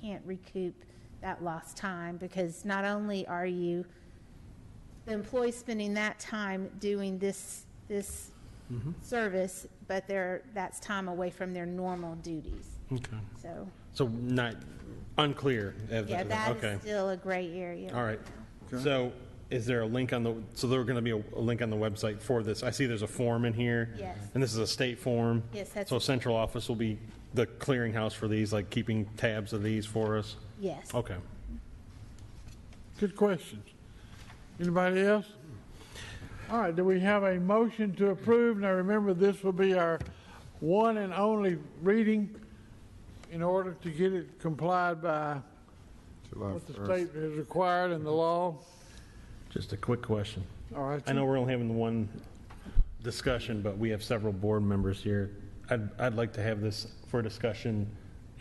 can't recoup that lost time because not only are you, the employee spending that time doing this, this Mm-hmm. service, but they're, that's time away from their normal duties. Okay. So, So not, unclear. of- yeah, that Okay. is still a gray area. All right. So is there a link on the, so there going to be a a link on the website for this? I see there's a form in here. Yes. And this is a state form. Yes, that's- So central office will be the clearinghouse for these, like keeping tabs of these for us? Yes. Okay. Good questions. Anybody else? All right, do we have a motion to approve? Now, remember, this will be our one and only reading in order to get it complied by July what the 1st. state has required in the law. Just a quick question. All right, I know we're only having the one discussion, but we have several board members here. I'd, I'd like to have this for discussion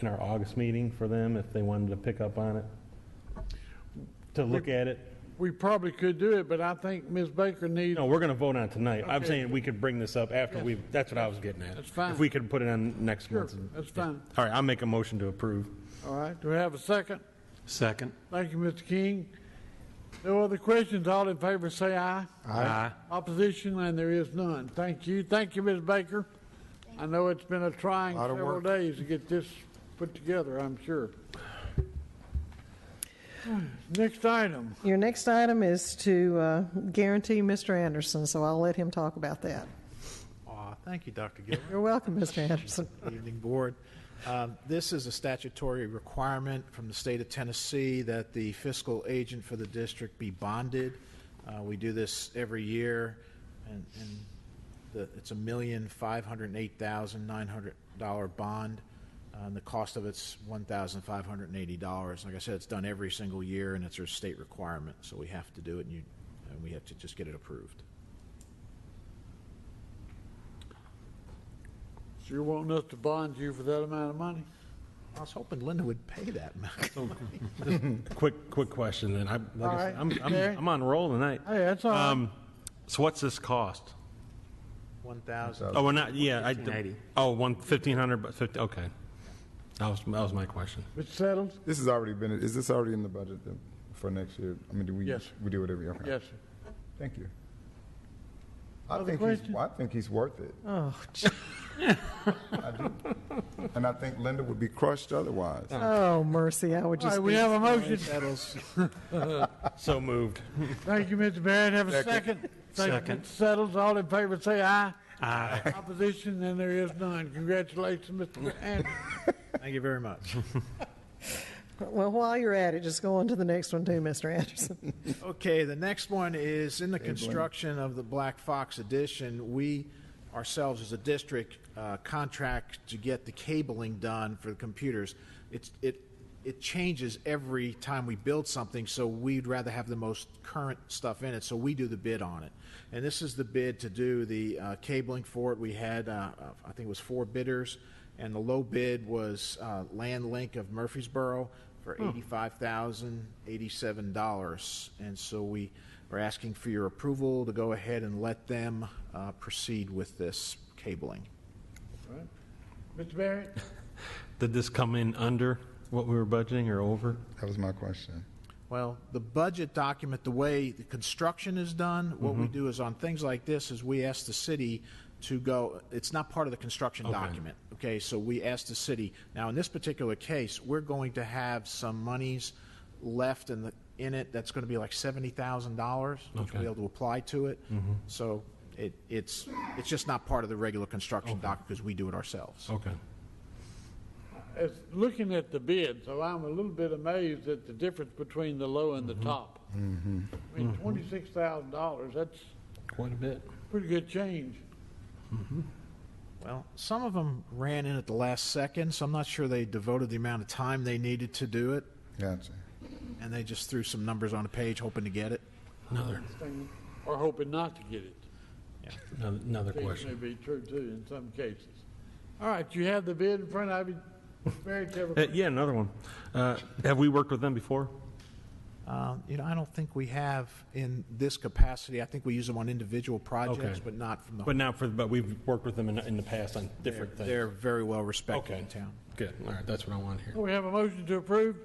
in our August meeting for them if they wanted to pick up on it, to look at it. we probably could do it, but I think Ms. Baker needs, No, we're going to vote on it tonight. I'm Okay. saying we could bring this up after we, that's what I was getting at. That's fine. If we could put it on next Sure, month. that's fine. All right, I'll make a motion to approve. all right, do we have a second? Second. Thank you, Mr. King. No other questions, all in favor say aye. Aye. Opposition, and there is none. Thank you. Thank you, Ms. Baker. I know it's been a trying Lot of several work. days to get this put together, I'm sure. Next item. Your next item is to uh, guarantee Mr. Anderson, so I'll let him talk about that. Aw, thank you, Dr. Gilbert. You're welcome, Mr. Anderson. Good Evening Board. Um, This is a statutory requirement from the state of Tennessee that the fiscal agent for the district be bonded. Uh, We do this every year, and and the- it's a million five hundred and eight thousand nine hundred dollar bond. Uh, And the cost of it's one thousand five hundred and eighty dollars. Like I said, it's done every single year, and it's a state requirement, so we have to do it, and you, and we have to just get it approved. So you're wanting us to bond you for that amount of money? I was hoping Linda would pay that much. Quick, quick question then. I, like All I right, said, I'm, Gary. I'm, I'm on roll tonight. Hey, that's all right. Um, So what's this cost? One thousand. Oh, we're not, yeah. I- 1580. Oh, one, fifteen hundred, but fifty, okay. That was, that was my question. It's settled? This has already been, is this already in the budget then for next year? I mean, do we, Yes. we do it every year? Okay. Yes, sir. Thank you. I Other think he's, questions? I think he's worth it. Oh, gee. And I think Linda would be crushed otherwise. oh mercy, I would All just. right, we be- have a motion. So moved. Thank you, Mr. Barrett. Have a second. Thank you, Second. Mr. Settles. All in favor say aye. Aye. Opposition, and there is none. Congratulations, Mr. Anderson. Thank you very much. Well, while you're at it, just go on to the next one too, Mr. Anderson. Okay, the next one is in the construction of the Black Fox addition, we ourselves as a district uh, contract to get the cabling done for the computers. It's, it, it changes every time we build something, so we'd rather have the most current stuff in it, so we do the bid on it. And this is the bid to do the uh, cabling for it. We had, uh, I think it was four bidders, and the low bid was uh, Land Link of Murfreesboro for eighty-five thousand eighty-seven dollars, and so we are asking for your approval to go ahead and let them uh, proceed with this cabling. Mr. Barrett? Did this come in under what we were budgeting or over? That was my question. Well, the budget document, the way the construction is done, what we do is on things like this is we ask the city to go, it's not part of the construction document. Okay, so we ask the city, now in this particular case, we're going to have some monies left in the, in it that's going to be like seventy thousand dollars, which we'll be able to apply to it. So it, it's, it's just not part of the regular construction doc because we do it ourselves. Okay. It's looking at the bid, so I'm a little bit amazed at the difference between the low and the Mm-hmm. top. I mean, twenty-six thousand dollars, that's Quite a bit. pretty good change. Well, some of them ran in at the last second, so I'm not sure they devoted the amount of time they needed to do it. Gotcha. and they just threw some numbers on a page hoping to get it. Another, Or hoping not to get it. another- another Which question. may be true too in some cases. All right, you have the bid in front of you. Very clever. Uh, yeah, another one. Uh, have we worked with them before? Uh, Um, You know, I don't think we have in this capacity. I think we use them on individual projects, Okay. but not from the. But not for, but we've worked with them in, in the past on different things. They're very well respected Okay. in town. Good, all right, that's what I want to hear. We have a motion to approve.